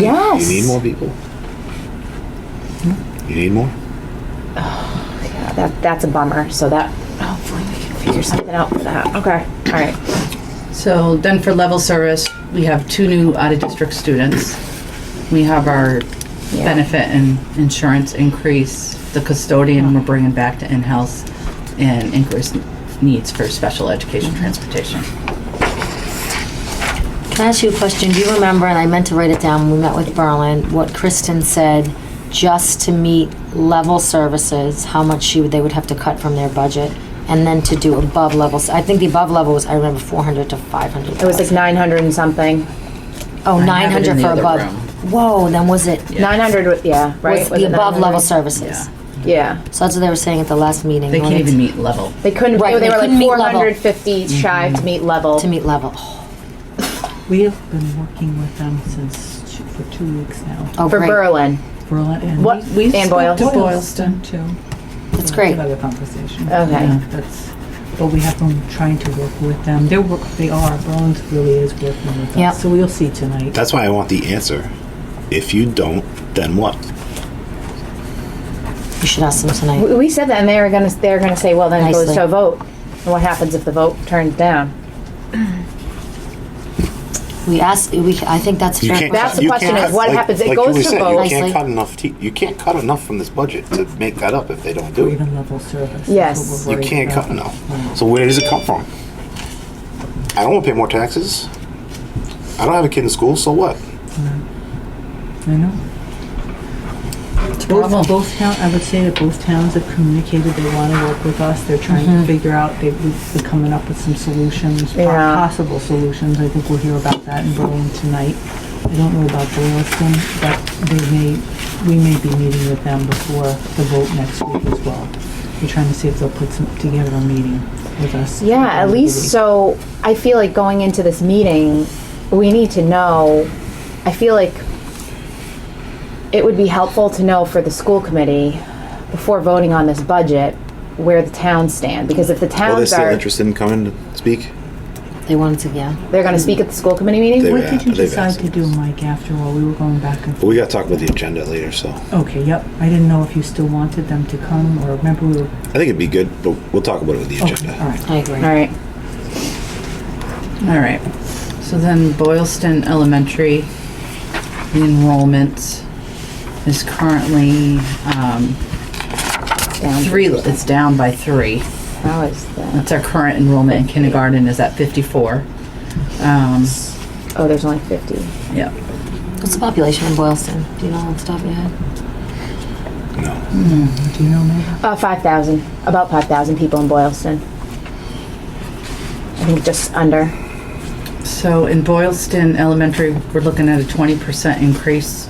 Yes. You need more people? You need more? Yeah, that, that's a bummer. So that hopefully we can figure something out for that. Okay. All right. So then for level service, we have two new out-of-district students. We have our Yeah. benefit and insurance increase, the custodian we're bringing back to in-house, and increased needs for special education transportation. Can I ask you a question? Do you remember, and I meant to write it down, when we met with Berlin, what Kristen said, just to meet level services, how much she, would- they would have to cut from their budget? And then to do above levels, I think the above level was, I remember, four hundred to five hundred. It was like 900 and something. Oh, I nine have it in hundred the for other above. room. Whoa, then was it, 900 with, yeah, right? was Was the it above 900? level services? Yeah. So that's what they were saying at the last meeting. They when can't it's even meet level. They couldn't, Right, they, they were like couldn't meet level. 450 Mm-hmm. shy to meet level. To meet level. Oh, We have been working with them since, two- for two weeks now. Oh, for great. Berlin. Berlin and What- we- we and spoke to Boylston. Boylston too. That's great. Another conversation. Okay. Yeah, That's, but we have been trying to work with them. They're, work- they are, Berlin's really is working with Yep. us. So we'll see tonight. That's why I want the answer. If you don't, then what? You should ask them tonight. We we said that, and they were gonna, they were gonna say, well, then it goes Nicely. to a vote. And what happens if the vote turns down? We asked, we, I think that's a You fair can't. That's cut- the you question can't is cut- what like- happens? It like goes Julie to said, vote. You Nicely. can't cut enough. Te- you can't cut enough from this budget to make that up if they don't do Or it. even level service. Yes. That's what You we're can't worried cut about. enough. So where does it come from? I don't want to pay more taxes. I don't have a kid in school, so what? I know. Both, both town, I would say that both towns have communicated they want to work with us. They're trying Mm-hmm. to figure out, they- we've been coming up with some solutions, po- Yeah. possible solutions. I think we'll hear about that in Berlin tonight. I don't know about Boylston, but they may, we may be meeting with them before the vote next week as well. We're trying to see if they'll put some, together a meeting with us. Yeah, at least so I feel like going into this meeting, we need to know. I feel like it would be helpful to know for the school committee before voting on this budget where the towns stand because if the towns are in coming to speak? They wanted to, yeah. they're going to speak at the school committee meeting They- What Yeah, did you they've decide asked to do, Mike, after all? We were going back and forth. But we got to talk about the agenda later. So I Okay, yep. I didn't know if you still wanted them to come or remember we were. think it'd be good, but we'll talk about it with the Okay, agenda. all right. I agree. all right All right, so then Boylston Elementary, the enrollment is currently, um, down three, it's down by three. how is that That's our current enrollment in kindergarten is at fifty-four. Um, oh there's only 50 yeah, What's the population in Boylston? Do you know off the top of your head? No, Do you know me? uh, 5000 about 5000 people in boylston i think just under so in Boylston Elementary, we're looking at a twenty percent increase.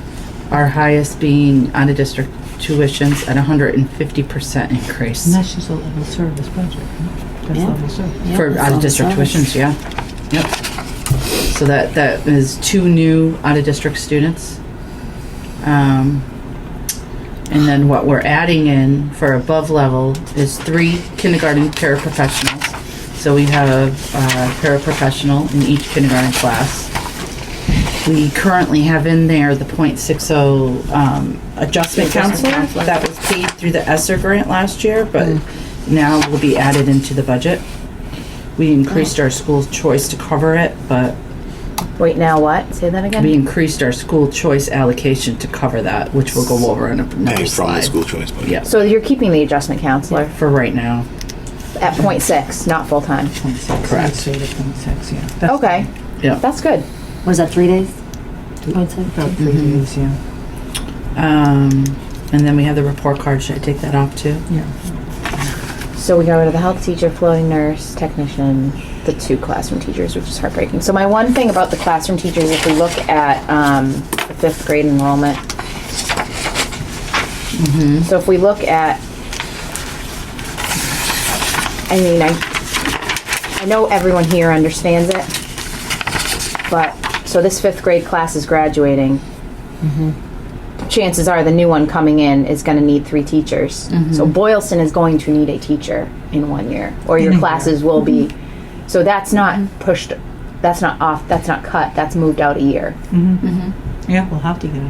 Our highest being out-of-district tuitions at hundred and fifty percent increase. And that's just a level service budget. right? That's Yeah. level service. Yeah, For that's out all of district service. tuitions, yeah. Yep. So that, that is two new out of district students. Um, and then what we're adding in for above level is three kindergarten paraprofessionals. So we have a paraprofessional in each kindergarten class. We currently have in there the .60 um, adjustment counselor that was paid through the ESSER grant last year, but now will be added into the budget. We increased our school choice to cover it, but wait now what say that again we increased our school choice allocation to cover that, which we'll go over in Hey, another from the slide. school choice budget. Yeah. so you're keeping the adjustment counselor For right now, at point six, not full time. Point six. Correct. I'd say the point six, yeah. That's Okay, yeah. that's good. What is that, three days? Point six? About three days, yeah. Um, and then we have the report card, should I take that off too? Yeah. So we got rid of the health teacher, floating nurse, technician, the two classroom teachers, which is heartbreaking. So my one thing about the classroom teachers, if we look at um, the fifth grade enrollment, so if we look at, I mean, I, I know everyone here understands it, but so this fifth grade class is graduating. chances are the new one coming in is going to need three teachers. So Boylston is going to need a teacher in one year, Mm-hmm. or your classes will be. So that's not pushed. That's not off. That's not cut. That's moved out a year. Yeah, we'll have to get it.